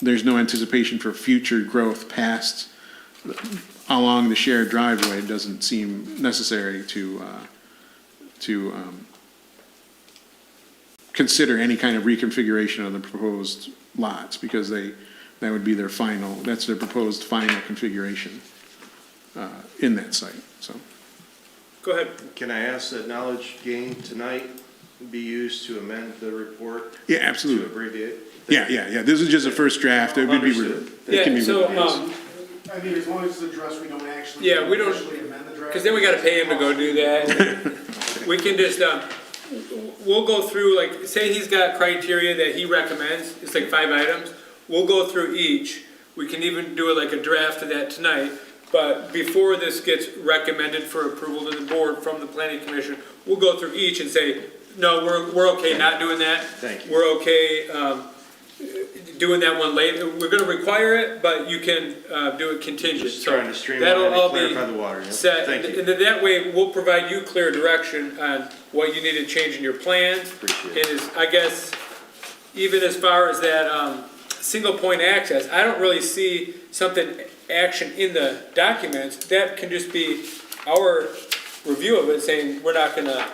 there's no anticipation for future growth past, along the shared driveway, it doesn't seem necessary to, uh, to um, consider any kind of reconfiguration of the proposed lots, because they, that would be their final, that's their proposed final configuration uh, in that site, so. Go ahead. Can I ask that knowledge gained tonight be used to amend the report Yeah, to absolutely. abbreviate? Yeah, yeah, yeah, this is just a first draft, it would be, Understood. it can Yeah, be. so, reviewed. um, I mean, as long as it's addressed, we don't actually. Yeah, we don't- Officially amend the draft. because then we gotta pay him to go do that. We can just, um, we'll go through, like, say he's got criteria that he recommends, it's like five items. We'll go through each, we can even do it like a draft of that tonight. But before this gets recommended for approval to the board from the planning commission, we'll go through each and say, no, we're, we're okay not doing that. Thank you. We're okay, um, doing that one later, we're gonna require it, but you can, uh, do it contingent. Just So trying to streamline that'll and all be clarify the water, yeah. Set, Thank and you. and then that way, we'll provide you clear direction on what you need to change in your plan. Appreciate And is, I guess, even as far as that, um, single point access, I don't really see something, action in the documents, that can just be our review of it, saying, we're not gonna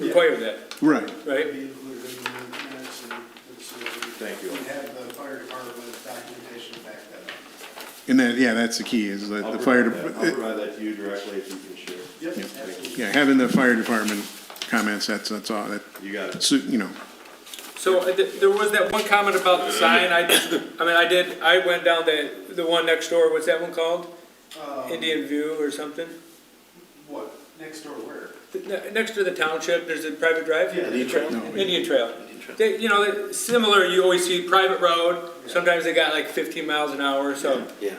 require that, Right, right? Be included in the minutes and- and so we- Thank you. We have the fire department documentation to back that up. and that, yeah, that's the key, is that I'll the fire, provide that- I'll dep- provide that to you directly if you can share. Yep, Yeah. absolutely. yeah, having the fire department comments, that's, that's all, that, You got it. so, you know, So uh, th- there was that one comment about the sign, I, did- I mean, I did, I went down the, the one next door, what's that one called? Indian View or something? What, next door where? Th- ne- Next to the township, there's a private drive? no, Indian Trail. They, you know, they're similar, you always see private road, sometimes they got like fifteen miles an hour, so. Yeah,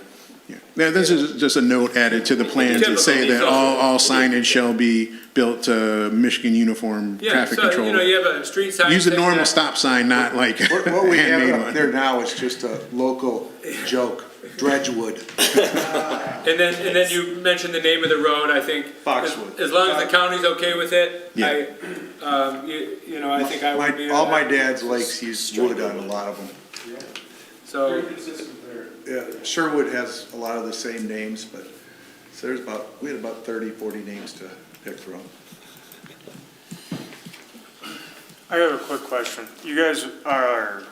Now, this is just a note added to the plan to say that all, all signage shall be built to Michigan uniform Yeah, traffic so, you know, control. you have a street sign. Use a thing normal that- stop sign, not like a What, what we have handmade up there one. now is just a local joke, Dredgewood. And then, and then you mentioned the name of the road, I think. Foxwood. As- As long as the county's okay with it, Yeah. I, um, you, you know, I think I would be. My- All my dad's lakes use wood on a lot of them. So. Very consistent there. Yeah, Sherwood has a lot of the same names, but, so there's about, we had about 30, 40 names to pick from. I have a quick question. You guys are,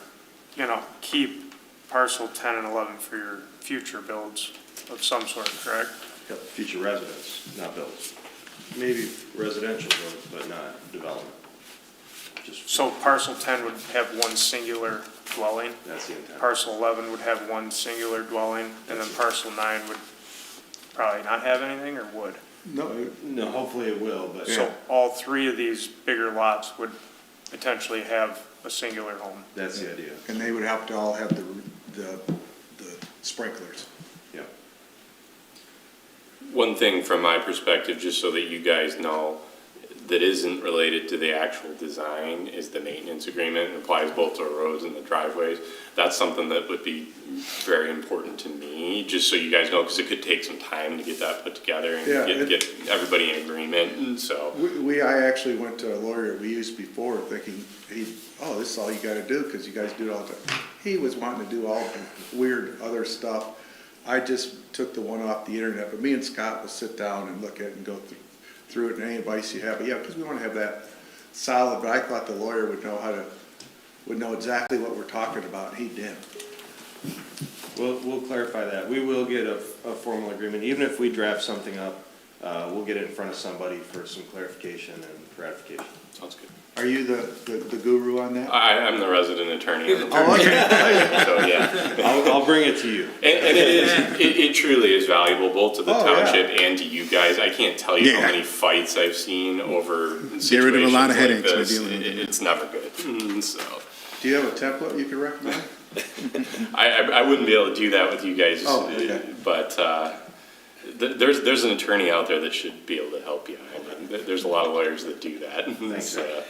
you know, keep parcel 10 and 11 for your future builds of some sort, correct? Yep, Future residents, not builds. Maybe residential, but- but not development. Just, So parcel 10 would have one singular dwelling, that's the intent. parcel 11 would have one singular dwelling, and then parcel 9 would probably not have anything, or would? No, No, hopefully it will, but. So all three of these bigger lots would potentially have a singular home. That's the idea, and they would have to all have the, the the sprinklers. yeah. One thing from my perspective, just so that you guys know, that isn't related to the actual design is the maintenance agreement. It applies both to the roads and the driveways. That's something that would be very important to me, just so you guys know, because it could take some time to get that put together and Yeah, get, it- get everybody in agreement, and so. We- We, I actually went to a lawyer we used before thinking, he, oh, this is all you gotta do, cause you guys do it all the time. He was wanting to do all the weird other stuff. I just took the one off the internet, but me and Scott will sit down and look at it and go through, through it and any advice you have. But yeah, cause we wanna have that solid, but I thought the lawyer would know how to, would know exactly what we're talking about, and he didn't. We'll, we'll clarify that. We will get a, a formal agreement, even if we draft something up, uh, we'll get it in front of somebody for some clarification and ratification. Sounds good. Are you the, the the guru on that? I, I'm the resident attorney, on the Oh, okay. team, so yeah. I'll, I'll bring it to you. And, and it is, it, it truly is valuable both to the Oh, yeah. township and to you guys. I can't tell you Yeah. how many fights I've seen over situations rid of a lot of like headaches by this. dealing with It- It's never good. Mm, So Do you have a template you could recommend? I, I, I wouldn't be able to do that with you guys. Oh, okay. But uh, th- there's there's an attorney out there that should be able to help you. I mean, th- there's a lot of lawyers that do that. So,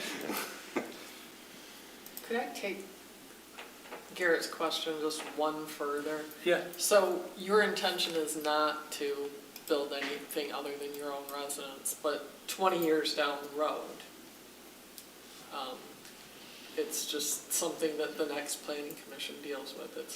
Could I take Garrett's question just one further? Yeah. So your intention is not to build anything other than your own residence, but twenty years down the road, um, it's just something that the next planning commission deals with. It's